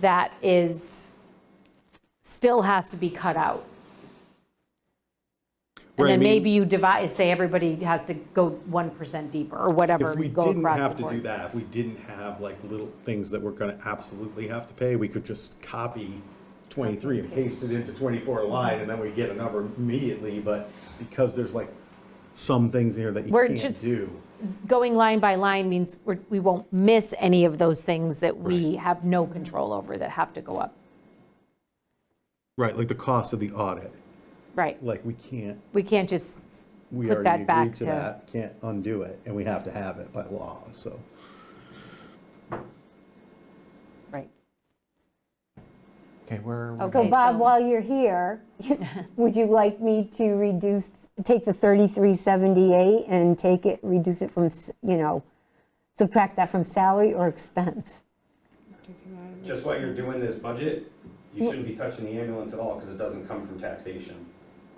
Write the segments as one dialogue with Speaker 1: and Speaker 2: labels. Speaker 1: that is, still has to be cut out. And
Speaker 2: Right, I
Speaker 1: then
Speaker 2: mean,
Speaker 1: maybe you divide, say everybody has to go 1% deeper or whatever,
Speaker 2: If we
Speaker 1: go
Speaker 2: didn't
Speaker 1: across
Speaker 2: have
Speaker 1: the
Speaker 2: to do
Speaker 1: board.
Speaker 2: that, if we didn't have like little things that we're gonna absolutely have to pay, we could just copy twenty-three and paste it into twenty-four line, and then we get a number immediately, but because there's like some things here that you
Speaker 1: We're
Speaker 2: can't
Speaker 1: just-
Speaker 2: do.
Speaker 1: Going line by line means we're- we won't miss any of those things that we have no control over that have to go up.
Speaker 2: Right, like the cost of the audit,
Speaker 1: Right.
Speaker 2: like we can't,
Speaker 1: We can't just
Speaker 2: we
Speaker 1: Put
Speaker 2: already
Speaker 1: that back
Speaker 2: agreed to
Speaker 1: to-
Speaker 2: that, can't undo it, and we have to have it by law, so.
Speaker 1: Right.
Speaker 3: Okay, where,
Speaker 1: Okay.
Speaker 4: So Bob,
Speaker 1: so-
Speaker 4: while you're here, would you like me to reduce, take the 3378 and take it, reduce it from, s- you know, subtract that from salary or expense?
Speaker 5: Just while you're doing this budget, you shouldn't be touching the ambulance at all, because it doesn't come from taxation.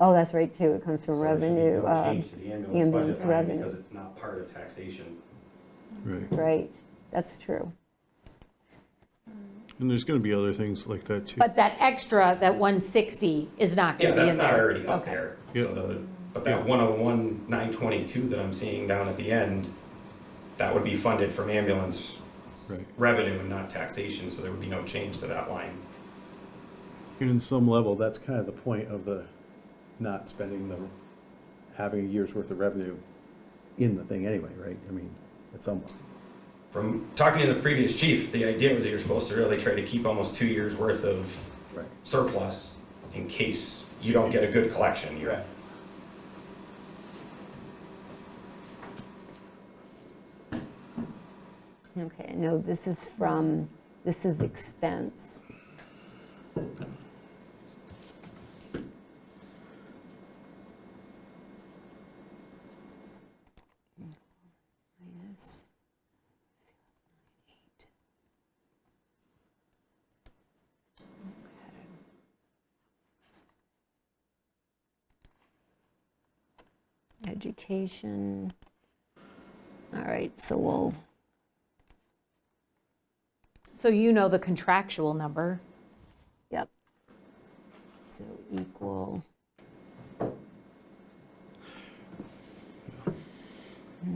Speaker 4: Oh, that's right, too, it comes from
Speaker 5: So there should be
Speaker 4: revenue,
Speaker 5: no
Speaker 4: uh,
Speaker 5: Change to the
Speaker 4: ambulance
Speaker 5: ambulance budget line,
Speaker 4: revenue.
Speaker 5: because it's not part of taxation.
Speaker 6: Right,
Speaker 4: right, that's true.
Speaker 6: and there's gonna be other things like that too.
Speaker 1: But that extra, that 160 is not
Speaker 5: Yeah,
Speaker 1: going to be
Speaker 5: that's
Speaker 1: in there.
Speaker 5: not already up
Speaker 1: Okay.
Speaker 5: there.
Speaker 6: Yeah.
Speaker 5: So the, but that one oh one, nine twenty-two that I'm seeing down at the end, that would be funded from ambulance
Speaker 6: Right.
Speaker 5: revenue and not taxation, so there would be no change to that line.
Speaker 2: And in some level, that's kind of the point of the not spending the, having a year's worth of revenue in the thing anyway, right? I mean, at some point.
Speaker 5: From talking to the previous chief, the idea was that you're supposed to really try to keep almost two years' worth of
Speaker 2: Right.
Speaker 5: surplus in case you don't get a good collection. You're-
Speaker 4: Okay, no, this is from, this is expense. Minus Okay. Education. All right, so we'll.
Speaker 1: So you know the contractual number.
Speaker 4: Yep. So equal. And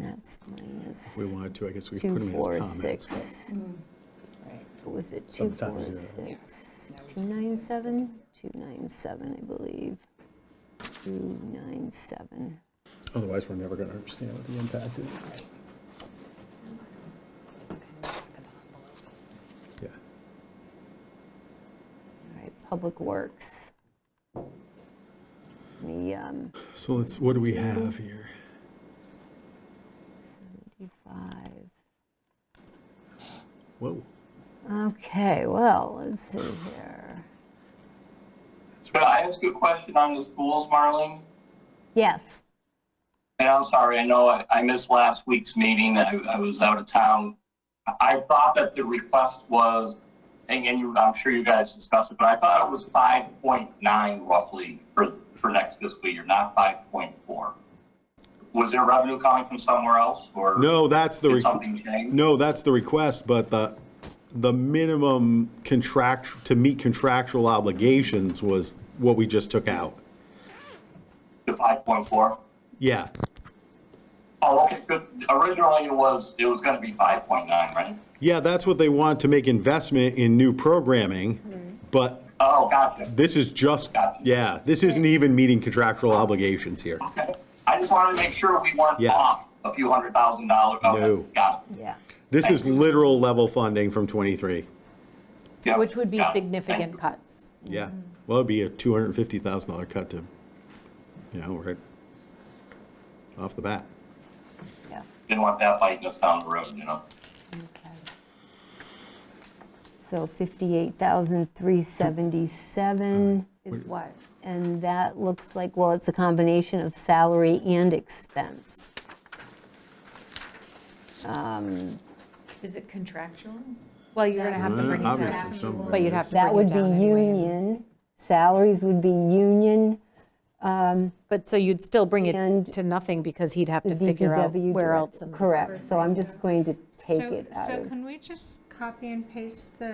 Speaker 4: that's minus
Speaker 6: If we wanted to, I guess we could
Speaker 4: two,
Speaker 6: put them as
Speaker 4: four,
Speaker 6: comments. but-
Speaker 4: six. Right, what was it, two,
Speaker 2: Sometimes,
Speaker 4: four,
Speaker 2: yeah.
Speaker 4: six, two, nine, seven? Two, nine, seven, I believe. Two, nine, seven.
Speaker 2: Otherwise, we're never gonna understand what the impact is. Yeah.
Speaker 4: All right, Public Works. The, um,
Speaker 6: So let's, what do we have here?
Speaker 4: 75.
Speaker 6: Whoa,
Speaker 4: Okay, well, let's see here.
Speaker 7: Could I ask you a question on the schools, Marlene?
Speaker 4: Yes.
Speaker 7: And I'm sorry, I know I- I missed last week's meeting, I I was out of town. I- I thought that the request was, and and you, I'm sure you guys discussed it, but I thought it was 5.9 roughly for, for next fiscal year, not 5.4. Was there revenue coming from somewhere else, or?
Speaker 2: No, that's the,
Speaker 7: Did
Speaker 2: requ-
Speaker 7: something change?
Speaker 2: no, that's the request, but the, the minimum contract, to meet contractual obligations was what we just took out.
Speaker 7: The 5.4?
Speaker 2: Yeah,
Speaker 7: Oh, okay, good. Originally, it was, it was gonna be 5.9, right?
Speaker 2: yeah, that's what they want, to make investment in new programming, but
Speaker 7: Oh, gotcha.
Speaker 2: This is just,
Speaker 7: Gotcha.
Speaker 2: yeah, this isn't even meeting contractual obligations here.
Speaker 7: Okay. I just wanted to make sure we weren't
Speaker 2: Yes.
Speaker 7: off a few hundred thousand dollars. Okay,
Speaker 2: No.
Speaker 7: Got it.
Speaker 4: Yeah.
Speaker 2: This is literal level funding from 23.
Speaker 7: Yep,
Speaker 1: Which would be
Speaker 7: got it. Thank
Speaker 1: significant
Speaker 7: you.
Speaker 1: cuts.
Speaker 2: Yeah, well, it'd be a $250,000 cut to, you know, right off the bat.
Speaker 4: Yeah.
Speaker 7: Didn't want that biting us down the road, you know?
Speaker 4: Okay. So 58,377,
Speaker 1: Is what?
Speaker 4: and that looks like, well, it's a combination of salary and expense.
Speaker 1: Is it contractual? Well, you're going to have to bring it down.
Speaker 6: Obviously, somewhere.
Speaker 1: But you'd have to
Speaker 4: That
Speaker 1: bring
Speaker 4: would
Speaker 1: it
Speaker 4: be
Speaker 1: down anyway.
Speaker 4: union, salaries would be union,
Speaker 1: But so you'd still bring it
Speaker 4: And
Speaker 1: to nothing because he'd have to figure out
Speaker 4: DPW.
Speaker 1: where
Speaker 4: direct-
Speaker 1: else. in the-
Speaker 4: Correct, so I'm just going to take
Speaker 8: So-
Speaker 4: it out
Speaker 8: So
Speaker 4: of.
Speaker 8: can we just copy and paste the